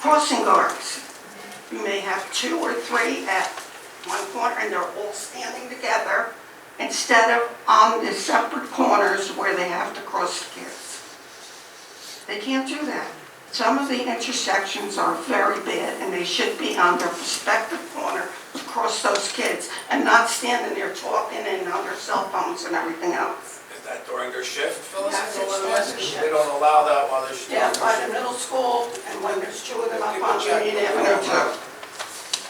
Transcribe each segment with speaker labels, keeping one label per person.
Speaker 1: crossing guards. You may have two or three at one corner, and they're all standing together instead of on the separate corners where they have to cross the kids. They can't do that. Some of the intersections are very bad, and they should be on their respective corner to cross those kids and not standing there talking and on their cell phones and everything else.
Speaker 2: Is that during their shift, Phyllis?
Speaker 1: Yes, it's during their shift.
Speaker 2: They don't allow that while they're.
Speaker 1: Yeah, by the middle school, and when there's two of them up on Union Avenue too.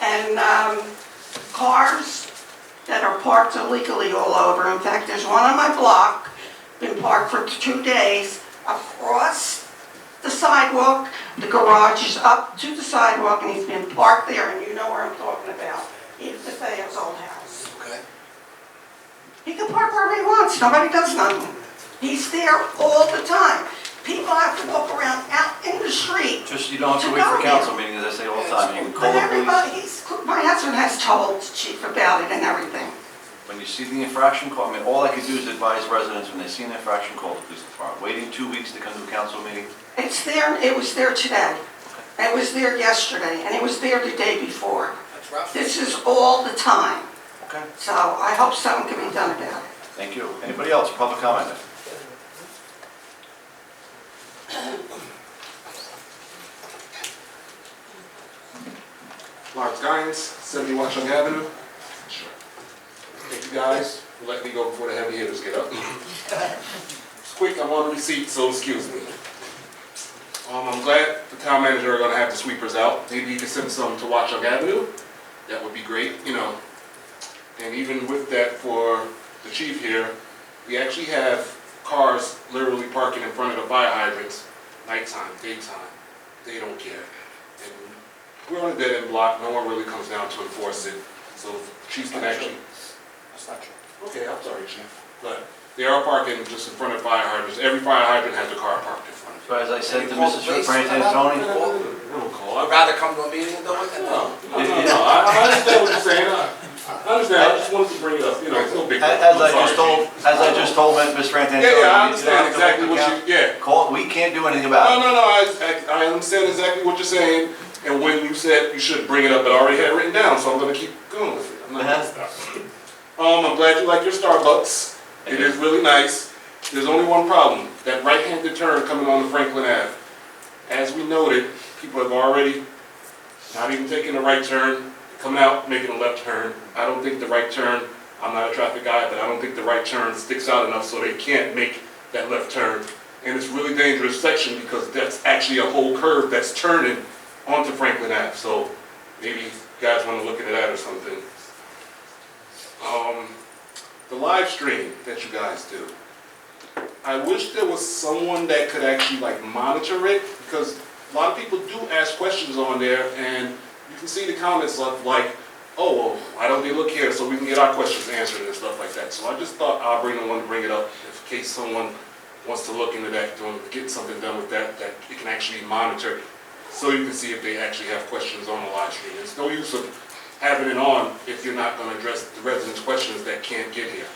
Speaker 1: And um, cars that are parked illegally all over. In fact, there's one on my block, been parked for two days across the sidewalk. The garage is up to the sidewalk and he's been parked there and you know where I'm talking about. Edith DeFeo's old house.
Speaker 2: Okay.
Speaker 1: He can park wherever he wants, nobody does nothing. He's there all the time. People have to walk around out in the street
Speaker 3: Just, you don't have to wait for council meeting, as I say all the time, you can
Speaker 1: But
Speaker 3: call the police.
Speaker 1: everybody, he's, my husband has told the chief about it and everything.
Speaker 3: When you see the infraction call, I mean, all I could do is advise residents when they see an infraction, call the police department. Waiting two weeks to come to a council meeting,
Speaker 1: It's there, it was there today. It was there yesterday, and it was there the day before.
Speaker 2: That's rough.
Speaker 1: This is all the time,
Speaker 3: okay,
Speaker 1: so I hope something can be done about it.
Speaker 3: thank you. Anybody else, public comment?
Speaker 4: Lawrence Guines, 71 Chung Avenue. Thank you guys for letting me go before the heavy hitters get up. It's quick, I'm on receipt, so excuse me. Um, I'm glad the town manager are gonna have the sweepers out. Maybe you can send some to Watchung Avenue. That would be great, you know. And even with that for the chief here, we actually have cars literally parking in front of the fire hydrants, nighttime, daytime. They don't care. And we're on a dead end block, no one really comes down to enforce it, so chiefs can actually.
Speaker 2: That's not true.
Speaker 4: Okay, I'm sorry, chief. But they are parking just in front of fire hydrants, every fire hydrant has a car parked in front of
Speaker 3: So as I said
Speaker 2: You
Speaker 3: to
Speaker 2: call the
Speaker 3: Mrs.
Speaker 2: police?
Speaker 3: Frantantoni,
Speaker 4: it. I don't call,
Speaker 2: I'd
Speaker 4: I-
Speaker 2: rather come to a meeting and do it than
Speaker 4: No,
Speaker 2: not.
Speaker 4: no, no, no, I I understand what you're saying, I I understand, I just wanted to bring it up, you know, it's no big. deal.
Speaker 3: as I
Speaker 4: I'm sorry,
Speaker 3: just told,
Speaker 4: chief.
Speaker 3: as I just told Ms. Frantantoni.
Speaker 4: Yeah, yeah, I
Speaker 3: you don't have
Speaker 4: understand
Speaker 3: to
Speaker 4: exactly
Speaker 3: wait
Speaker 4: what
Speaker 3: for
Speaker 4: you, yeah.
Speaker 3: coun- Call, we can't do anything
Speaker 4: No,
Speaker 3: about it.
Speaker 4: no, no, I, I I understand exactly what you're saying, and when you said you should bring it up, I already had it written down, so I'm gonna keep going with it. I'm not gonna stop. Um, I'm glad you like your Starbucks, it is really nice. There's only one problem, that right-handed turn coming on to Franklin Ave. As we noted, people have already not even taking the right turn, coming out, making a left turn. I don't think the right turn, I'm not a traffic guy, but I don't think the right turn sticks out enough so they can't make that left turn. And it's really dangerous section because that's actually a whole curve that's turning onto Franklin Ave. So maybe you guys want to look into that or something. Um, the live stream that you guys do. I wish there was someone that could actually like monitor it because a lot of people do ask questions on there and you can see the comments of like, oh, well, why don't they look here so we can get our questions answered and stuff like that. So I just thought I'll bring the one to bring it up in case someone wants to look into that, doing, get something done with that, that it can actually monitor so you can see if they actually have questions on the live stream. It's no use of having it on if you're not gonna address the residents' questions that can't get here.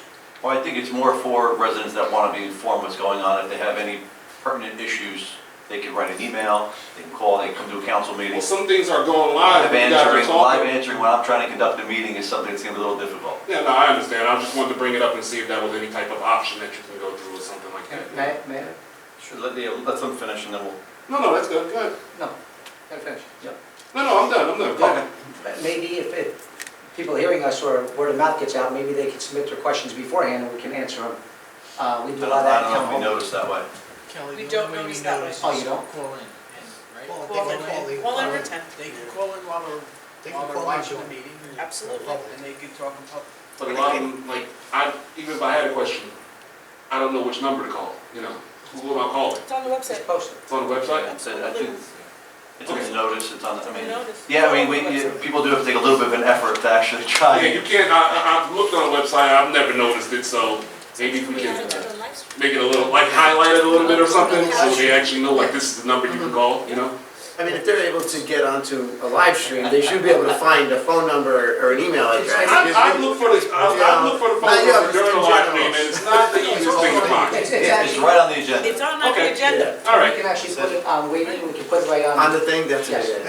Speaker 3: Well, I think it's more for residents that want to be informed what's going on. If they have any pertinent issues, they can write an email, they can call, they can come to a council meeting.
Speaker 4: Well, some things are going
Speaker 3: Live
Speaker 4: live, you guys are
Speaker 3: answering,
Speaker 4: talking.
Speaker 3: live answering when I'm trying to conduct a meeting is something that's gonna be a little difficult.
Speaker 4: Yeah, no, I understand. I just wanted to bring it up and see if that was any type of option that you can go through or something like that.
Speaker 5: May, may I?
Speaker 3: Sure, let, yeah, let them finish and then we'll.
Speaker 4: No, no, that's good, good.
Speaker 5: No, gotta finish.
Speaker 4: No, no, I'm done, I'm done. Go ahead.
Speaker 5: Maybe if, if people hearing us or word of mouth gets out, maybe they can submit their questions beforehand and we can answer them. Uh, we
Speaker 3: I
Speaker 5: do a
Speaker 3: don't
Speaker 5: lot of
Speaker 3: I
Speaker 5: that.
Speaker 3: don't know
Speaker 5: at town
Speaker 3: if we
Speaker 5: hall.
Speaker 3: noticed that way.
Speaker 6: Kelly,
Speaker 7: We
Speaker 6: the
Speaker 7: don't
Speaker 6: only way
Speaker 7: notice
Speaker 6: we
Speaker 7: that
Speaker 6: notice
Speaker 5: way.
Speaker 6: is
Speaker 5: Oh, you don't?
Speaker 6: call in, and- right?
Speaker 7: Call in, call in. Call in or text.
Speaker 6: They can call in while they're,
Speaker 7: They can
Speaker 6: while they're
Speaker 7: call in
Speaker 6: watching the
Speaker 7: during-
Speaker 6: meeting. and-
Speaker 7: Absolutely.
Speaker 6: And they can talk in public.
Speaker 4: But a lot of them, like, I, even if I had a question, I don't know which number to call, you know? Who am I calling?
Speaker 7: It's on the website.
Speaker 5: It's posted.
Speaker 4: It's on the website?
Speaker 3: It's, I think, it's on the notice, it's on, the- I mean,
Speaker 7: Notice.
Speaker 3: yeah, I mean, we, yeah, people do have to take a little bit of an effort to actually try.
Speaker 4: Yeah, you can't, I, I, I've looked on the website, I've never noticed it, so maybe we
Speaker 7: We
Speaker 4: can
Speaker 7: haven't done a live stream.
Speaker 4: make it a little, like, highlight it a little bit or something, so they actually know, like, this is the number you can call, you know?
Speaker 8: I mean, if they're able to get onto a live stream, they should be able to find a phone number or an email address.
Speaker 4: I, I look for the, I, I look for the phone
Speaker 8: Yeah.
Speaker 4: number during the live stream, and it's not the easiest thing to find.
Speaker 5: It's,
Speaker 3: It's
Speaker 5: it's actually,
Speaker 3: right on the agenda.
Speaker 7: It's on our
Speaker 4: Okay.
Speaker 7: agenda.
Speaker 4: All
Speaker 5: we
Speaker 4: right.
Speaker 5: can actually put it on waiting, we can put it right on.
Speaker 8: On the thing, that's what it is.